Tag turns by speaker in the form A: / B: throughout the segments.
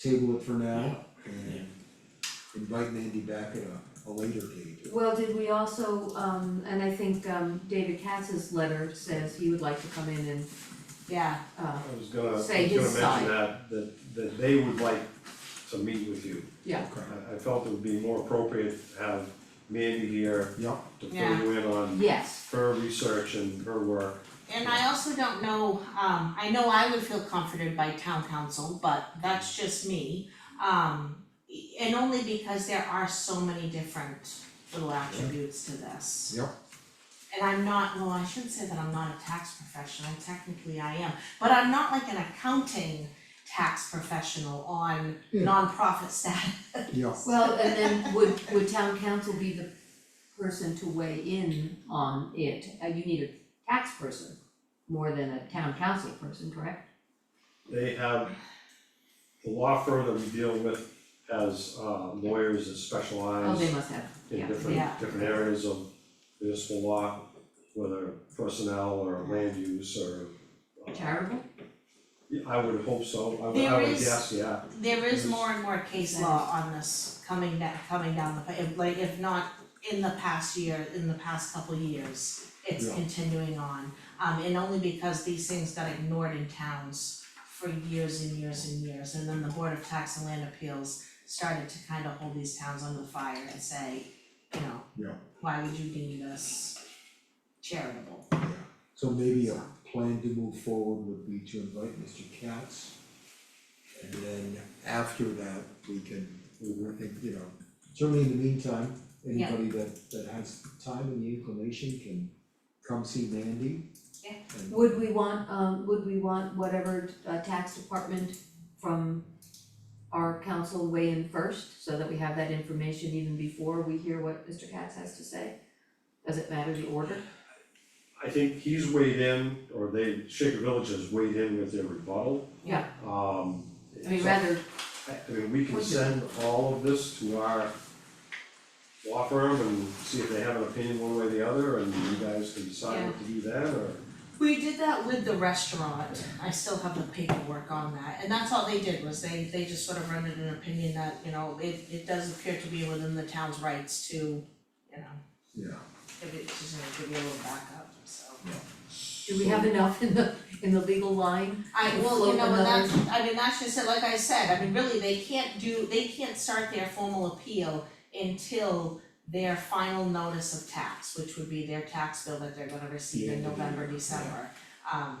A: table it for now
B: Yeah.
A: and invite Mandy back at a, a later date.
C: Well, did we also, um, and I think, um, David Katz's letter says he would like to come in and,
D: Yeah,
C: uh,
E: I was gonna, I was
C: Say
E: gonna
C: his
E: mention
C: side.
E: that, that, that they would like to meet with you.
C: yeah,
A: Okay.
E: I, I felt it would be more appropriate to have Mandy here
A: Yeah,
E: to fill
D: Yeah.
E: you in on
C: yes,
E: her research and her work.
D: and I also don't know, um, I know I would feel comforted by town council, but that's just me. Um, and only because there are so many different little attributes to this.
A: Yep.
D: And I'm not, well, I shouldn't say that I'm not a tax professional, technically I am, but I'm not like an accounting tax professional on
A: Yeah.
D: nonprofit status.
A: yeah,
C: well, and then would, would town council be the person to weigh in on it? Uh, you need a tax person more than a town council person, correct?
E: They have, the law firm that we deal with has uh, lawyers that
C: Oh,
E: specialize
C: they must have,
E: in
C: yeah,
E: different,
D: yeah.
E: different areas of municipal law, whether personnel or land use or. uh,
C: charitable,
E: Yeah, I would hope so, I would, I
D: There
E: would
D: is-
E: guess, yeah,
D: There is more and more case
C: Yes.
D: law on this coming down, coming down the, pa- if- like, if not in the past year, in the past couple years, it's
A: Yeah.
D: continuing on. Um, and only because these things got ignored in towns for years and years and years, and then the Board of Tax and Land Appeals started to kind of hold these towns under the fire and say, you know,
A: Yeah.
D: why would you deem this charitable?
A: yeah. So maybe a plan to move forward would be to invite Mr. Katz. And then after that, we can, we were think, you know, certainly in the meantime,
D: Yeah.
A: anybody that that has time and the inclination can come see Mandy.
D: Yeah.
A: and-
C: would we want, um, would we want whatever, uh, tax department from our council weigh in first, so that we have that information even before we hear what Mr. Katz has to say? Does it matter the order?
E: I think he's weighed in, or they, Shaker Village has weighed in with their rebuttal.
C: Yeah.
E: Um.
C: I mean,
E: so-
C: rather,
E: I I mean, we can send all of this to our law firm and see if they have an opinion one way or the other, and you guys can decide what to do then, or.
D: We did that with the restaurant, I still have the paperwork on that, and that's all they did was they they just sort of rendered an opinion that, you know, it it does appear to be within the town's rights to, you know,
A: Yeah,
D: give it, just you know, give you a little backup, so.
C: do we have enough in the, in the legal line?
D: I,
C: Can
D: well,
C: float
D: you know, and
C: another-
D: that's, I mean, that's just it, like I said, I mean, really, they can't do, they can't start their formal appeal until their final notice of tax, which would be their tax bill that they're gonna receive in
A: Yeah.
D: November, December. Um,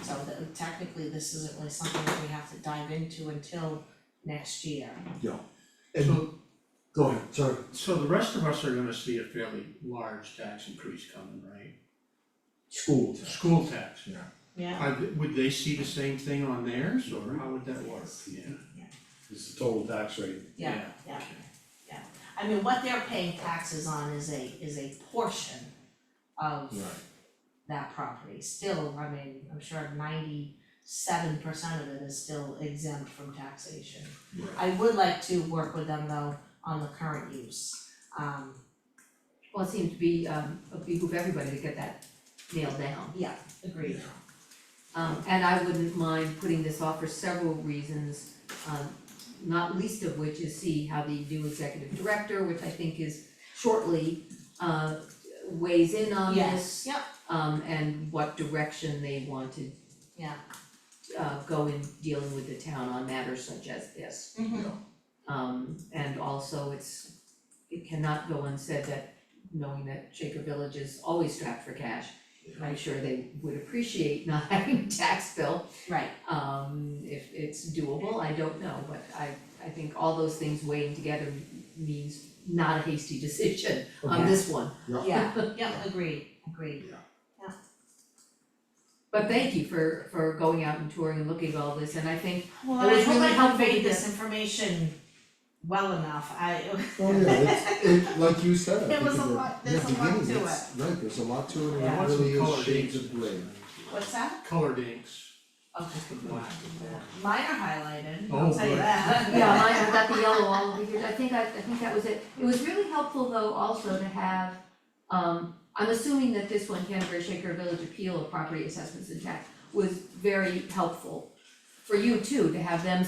D: so the- technically, this isn't really something that we have to dive into until next year.
A: and
B: So,
A: go ahead, sorry,
B: so the rest of us are gonna see a fairly large tax increase coming, right?
A: school tax.
B: School tax.
D: Yeah.
B: Are, th- would they see the same thing on theirs, or how would that work? Yeah.
E: It's the total tax rate.
D: Yeah, yeah. I mean, what they're paying taxes on is a, is a portion of
A: Right.
D: that property, still, I mean, I'm sure ninety-seven percent of it is still exempt from taxation.
A: Right.
D: I would like to work with them though on the current use, um,
C: Well, it seems to be, um, it behoove everybody to get that nailed down.
D: yeah, agreed.
C: Um, and I wouldn't mind putting this off for several reasons, um, not least of which is see how the new executive director, which I think is shortly, uh, weighs in on
D: Yes,
C: this.
D: yep,
C: Um, and what direction they want to
D: yeah,
C: uh go in dealing with the town on matters such as this.
D: mhm,
C: Um, and also it's, it cannot go unsaid that knowing that Shaker Village is always strapped for cash. I'm sure they would appreciate not having a tax bill,
D: right,
C: um, if it's doable, I don't know, but I, I think all those things weighing together means not a hasty decision on
A: Okay.
C: this one.
D: yeah, yeah, agreed, agreed.
C: But thank you for, for going out and touring and looking at all this, and I think,
D: Well,
C: It
D: and I
C: was
D: hope
C: really
D: I
C: helpful to
D: conveyed
C: get-
D: this information well enough, I,
A: Oh, yeah, it's, it, like you said, I
D: It
A: think
D: was
A: in
D: a
A: the-
D: lot-
A: in the
D: there's a lot
A: beginning,
D: to
A: it's- right, there's a lot to it,
B: I
A: and
B: want
A: it
B: some
A: really is
B: colored
A: shades
B: inks.
A: of gray.
D: what's that?
B: Colored inks,
D: Okay.
B: the black and white.
D: Mine are highlighted,
B: Oh,
D: I'll tell you
B: good.
D: that.
C: yeah, mine, I've got the yellow all over here, I think I, I think that was it. It was really helpful though also to have, um, I'm assuming that this one, Canterbury Shaker Village Appeal of Property Assessments and Tax, was very helpful for you too, to have them